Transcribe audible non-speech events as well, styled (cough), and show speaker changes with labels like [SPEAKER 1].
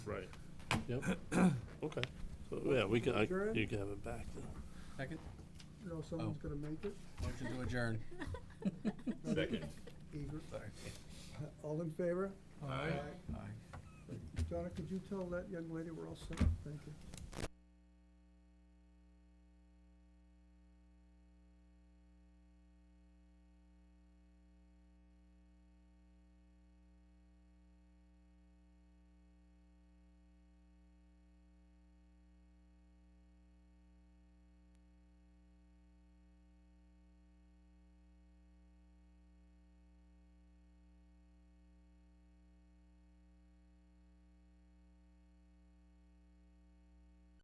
[SPEAKER 1] Right. Yep. Okay. So, yeah, we can, I, you can have it back then.
[SPEAKER 2] Second,
[SPEAKER 3] You know, someone's
[SPEAKER 2] Oh.
[SPEAKER 3] gonna make it.
[SPEAKER 2] motion to adjourn.
[SPEAKER 4] Second.
[SPEAKER 3] Eager.
[SPEAKER 2] Sorry.
[SPEAKER 3] (laughs) All in favor?
[SPEAKER 2] Aye. Aye.
[SPEAKER 3] Donna, could you tell that young lady we're all set? Thank you.